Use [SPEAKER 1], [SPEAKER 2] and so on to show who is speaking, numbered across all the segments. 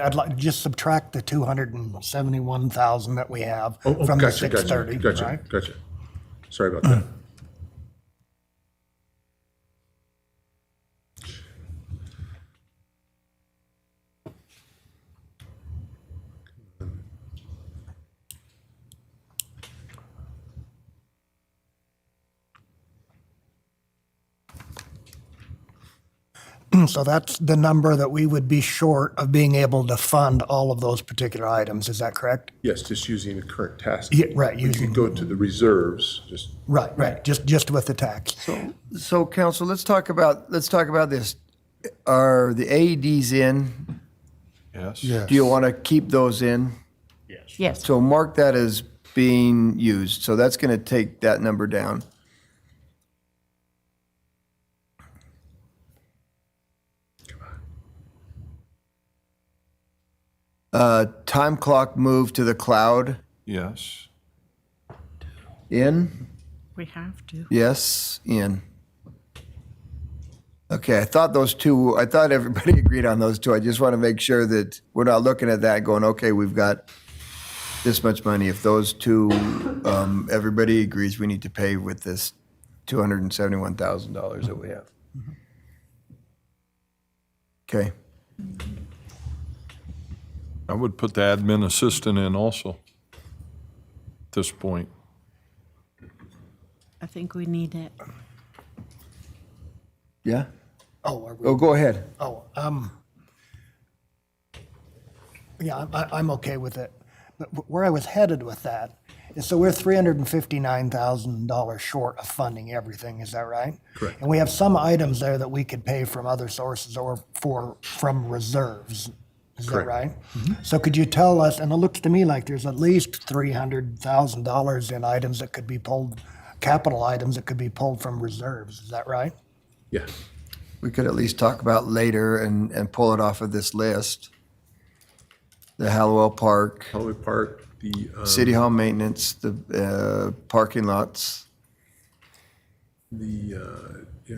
[SPEAKER 1] I'd like, just subtract the 271,000 that we have
[SPEAKER 2] Oh, oh,
[SPEAKER 1] from the
[SPEAKER 2] gotcha, gotcha,
[SPEAKER 1] 630, right? Mm.
[SPEAKER 2] Gotcha, gotcha. Sorry about that.
[SPEAKER 1] So that's the number that we would be short of being able to fund all of those particular items, is that correct?
[SPEAKER 2] Yes, just using the current task.
[SPEAKER 1] Yeah, right,
[SPEAKER 2] You
[SPEAKER 1] using-
[SPEAKER 2] can go to the reserves, just,
[SPEAKER 1] Right, right, just, just with the tax.
[SPEAKER 3] So council, let's talk about, let's talk about this. Are the AEDs in?
[SPEAKER 4] Yes.
[SPEAKER 3] Do you want to keep those in?
[SPEAKER 5] Yes,
[SPEAKER 3] So mark that as being used. So that's going to take that number down. Uh, time clock move to the cloud
[SPEAKER 4] Yes.
[SPEAKER 3] in?
[SPEAKER 5] we have to.
[SPEAKER 3] Yes, in. Okay, I thought those two, I thought everybody agreed on those two. I just want to make sure that we're not looking at that going, okay, we've got this much money. If those two, um, everybody agrees we need to pay with this $271,000 that we have. Okay,
[SPEAKER 4] I would put the admin assistant in also at this point.
[SPEAKER 5] I think we need it.
[SPEAKER 3] yeah?
[SPEAKER 1] Oh, are we?
[SPEAKER 3] Oh, go ahead.
[SPEAKER 1] Oh, um, yeah, I- I, I'm okay with it. But wh- where I was headed with that is so we're three hundred and fifty-nine thousand dollars short of funding everything, is that right? Correct. And we have some items there that we could pay from other sources or for, from reserves, is that
[SPEAKER 2] Correct.
[SPEAKER 1] right? So could you tell us, and it looks to me like there's at least three hundred thousand dollars in items that could be pulled, capital items that could be pulled from reserves, is that right?
[SPEAKER 2] yeah.
[SPEAKER 3] we could at least talk about later and, and pull it off of this list. The Hallowell Park,
[SPEAKER 2] Holloway Park, the, uh,
[SPEAKER 3] City Hall maintenance, the uh, parking lots.
[SPEAKER 2] the, uh, yeah.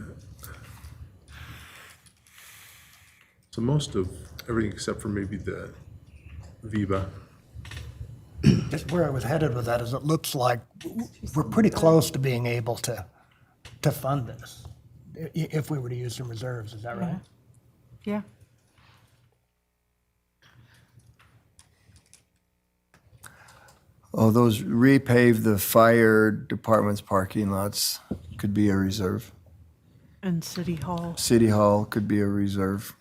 [SPEAKER 2] So most of everything except for maybe the Viva.
[SPEAKER 1] That's where I was headed with that, is it looks like we're pretty close to being able to, to fund this, i- if we were to use some reserves, is that right?
[SPEAKER 5] Yeah.
[SPEAKER 3] Oh, those repave the fire department's parking lots could be a reserve.
[SPEAKER 5] And City Hall.
[SPEAKER 3] City Hall could be a reserve.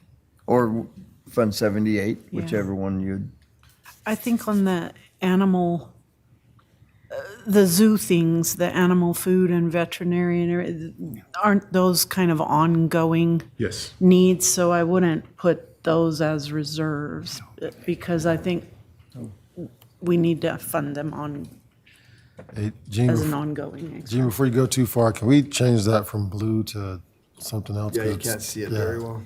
[SPEAKER 3] Or Fund 78, whichever one you'd.
[SPEAKER 5] I think on the animal, uh, the zoo things, the animal food and veterinarian, uh, aren't those kind of ongoing
[SPEAKER 2] Yes,
[SPEAKER 5] needs? So I wouldn't put those as reserves uh, because I think we need to fund them on,
[SPEAKER 6] Hey, Gene,
[SPEAKER 5] as an
[SPEAKER 6] bef-
[SPEAKER 5] ongoing. expense.
[SPEAKER 6] Gene, before you go too far, can we change that from blue to something else? that's- yeah,
[SPEAKER 3] well.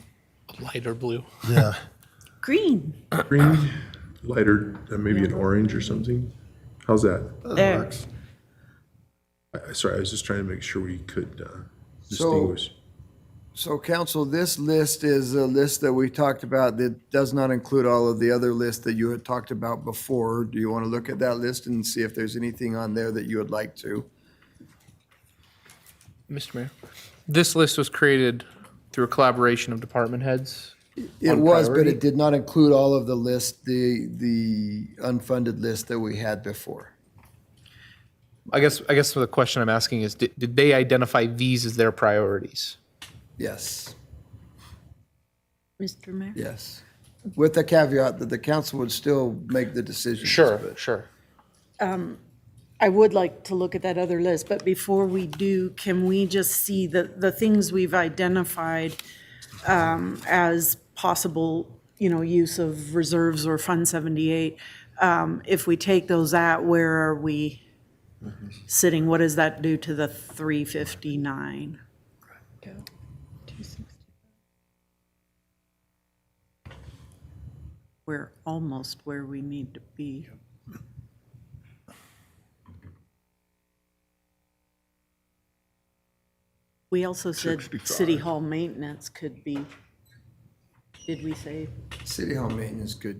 [SPEAKER 7] lighter blue.
[SPEAKER 6] Yeah,
[SPEAKER 5] Green.
[SPEAKER 2] green, lighter, uh, maybe an orange or something. How's that?
[SPEAKER 5] There.
[SPEAKER 2] I- I- Sorry, I was just trying to make sure we could uh, distinguish.
[SPEAKER 3] So council, this list is a list that we talked about that does not include all of the other lists that you had talked about before. Do you want to look at that list and see if there's anything on there that you would like to?
[SPEAKER 7] Mr. Mayor, this list was created through a collaboration of department heads.
[SPEAKER 3] It
[SPEAKER 7] On
[SPEAKER 3] was, but
[SPEAKER 7] priority?
[SPEAKER 3] it did not include all of the list, the, the unfunded list that we had before.
[SPEAKER 7] I guess, I guess the question I'm asking is, did, did they identify these as their priorities?
[SPEAKER 3] Yes,
[SPEAKER 5] Mr. Mayor?
[SPEAKER 3] yes. With the caveat that the council would still make the decision.
[SPEAKER 7] sure.
[SPEAKER 5] I would like to look at that other list, but before we do, can we just see the, the things we've identified um, as possible, you know, use of reserves or Fund 78? Um, If we take those out, where are we sitting? What does that do to the 359? We're almost where we need to be. We also said city hall maintenance could be, did we say
[SPEAKER 3] City Hall maintenance could